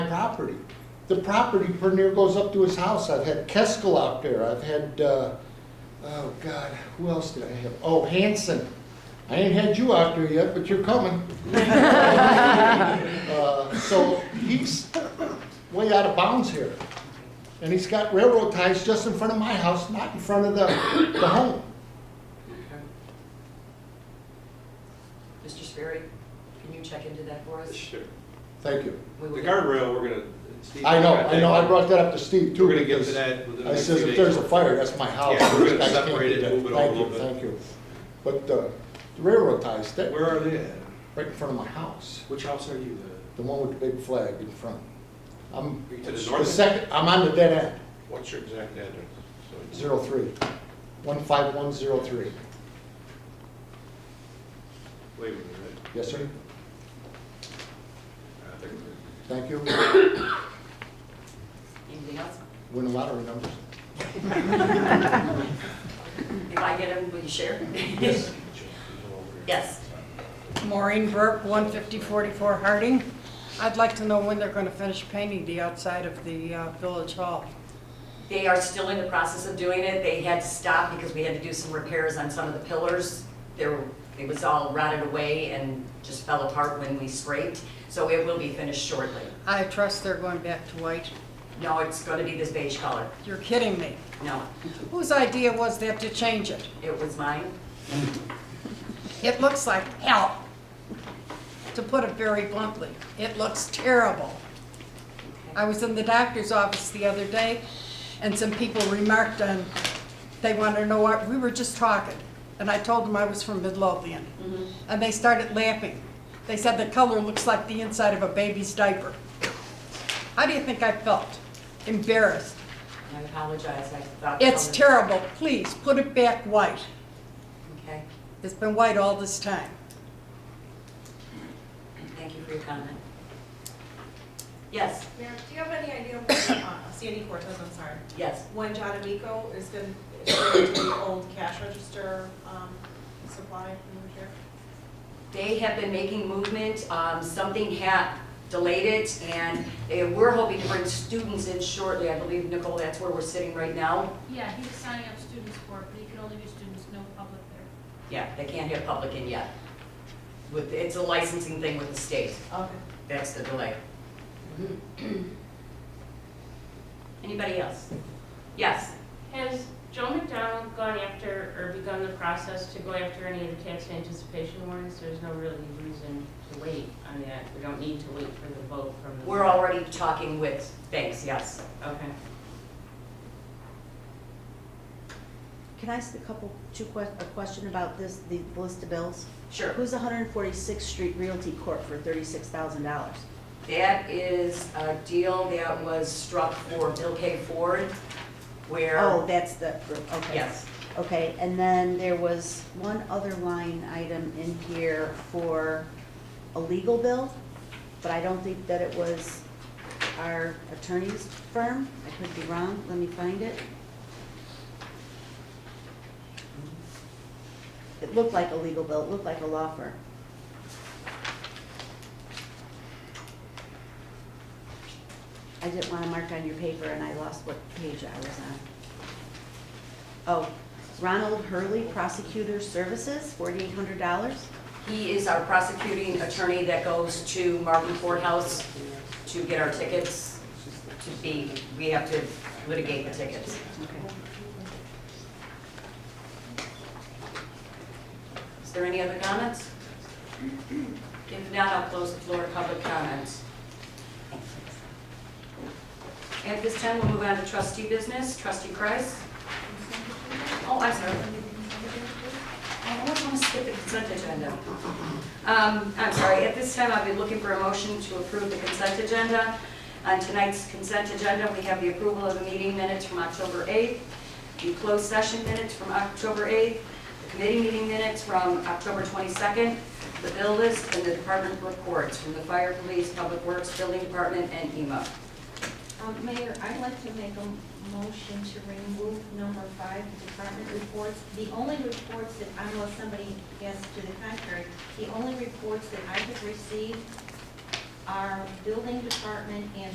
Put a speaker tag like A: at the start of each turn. A: property. The property pretty near goes up to his house. I've had Keskel out there. I've had, uh, oh God, who else did I have? Oh, Hanson. I ain't had you out there yet, but you're coming. Uh, So he's way out of bounds here. And he's got railroad ties just in front of my house, not in front of the, the home.
B: Mr. Sperry, can you check into that for us?
C: Sure.
A: Thank you.
B: We
C: The
B: will-
C: guardrail, we're gonna. Steve,
A: I know,
C: we're gonna-
A: I know, I brought that up to Steve too.
C: We're gonna get to
A: because
C: that within the
A: I
C: next
A: says,
C: few
A: if there's a
C: days.
A: fire, that's my house.
C: Yeah, we're
A: These
C: gonna
A: guys can't
C: separate
A: do
C: it,
A: that.
C: move it all
A: Thank you,
C: over.
A: Thank you. But uh, the railroad ties, that,
C: Where are they at?
A: right in front of my house,
C: Which house are you? the-
A: the one with the big flag in front. I'm,
C: Are you to the
A: the
C: north?
A: second, I'm on the dead end.
C: What's your exact address? So it's-
A: Zero three, one five one zero three.
C: Wait a minute, right?
A: Yes, sir?
C: I think we're-
A: Thank you.
B: Anything else?
A: Win the lottery numbers.
B: If I get them, will you share?
A: Yes.
B: Yes.
D: Maureen Burke, 15044 Harding. I'd like to know when they're going to finish painting the outside of the uh, Village Hall.
B: They are still in the process of doing it. They had to stop because we had to do some repairs on some of the pillars. There, it was all rotted away and just fell apart when we scraped. So it will be finished shortly.
D: I trust they're going back to white.
B: No, it's going to be this beige color.
D: You're kidding me.
B: No,
D: Whose idea was that to change it?
B: it was mine.
D: It looks like hell, to put it very bluntly. It looks terrible. I was in the doctor's office the other day, and some people remarked on, they wanted to know what, we were just talking, and I told them I was from Midlothian. And they started laughing. They said the color looks like the inside of a baby's diaper. How do you think I felt? Embarrassed.
B: I apologize. I thought.
D: It's terrible. Please, put it back white.
B: Okay.
D: It's been white all this time.
B: Thank you for your comment. Yes,
E: Mayor, do you have any idea when, uh, Sandy Cortez, I'm sorry,
B: yes.
E: when John Amico is going to, the old cash register um, supply from here?
B: They have been making movement, um, something had delayed it, and they we're hoping to bring students in shortly. I believe, Nicole, that's where we're sitting right now.
F: Yeah, he was signing up students for it, but he could only do students, no public there.
B: Yeah, they can't have public in yet. With, it's a licensing thing with the state,
E: Okay.
B: that's the delay. Anybody else? Yes,
G: Has Joe McDonald gone after, or begun the process to go after any of the tax anticipation warrants? There's no really reason to wait on that. We don't need to wait for the vote from the.
B: we're already talking with banks, yes.
G: Okay.
H: Can I ask a couple, two que, a question about this, the list of bills?
B: Sure.
H: Who's 146th Street Realty Corp. for $36,000?
B: That is a deal that was struck for Bill K. Ford, where.
H: Oh, that's the, okay.
B: Yes.
H: Okay, and then there was one other line item in here for a legal bill, but I don't think that it was our attorney's firm. I could be wrong, let me find it. It looked like a legal bill, it looked like a law firm. I didn't want to mark on your paper and I lost what page I was on. Oh, Ronald Hurley Prosecutor Services, forty-eight hundred dollars?
B: He is our prosecuting attorney that goes to Marvin Courthouse to get our tickets, to be, we have to litigate the tickets.
H: Okay.
B: Is there any other comments? If not, I'll close the floor to public comments. At this time, we'll move on to trustee business. Trustee Kreis? Oh, I'm sorry. I almost want to skip the consent agenda. Um, I'm sorry, at this time, I'll be looking for a motion to approve the consent agenda. On tonight's consent agenda, we have the approval of the meeting minutes from October 8th, the closed session minutes from October 8th, the committee meeting minutes from October 22nd, the bill list, and the department reports from the fire, police, public works, building department, and E EMA.
I: Um, Mayor, I'd like to make a motion to remove number five, the department reports. The only reports that, I know somebody asked to the contrary, the only reports that I have received are building department and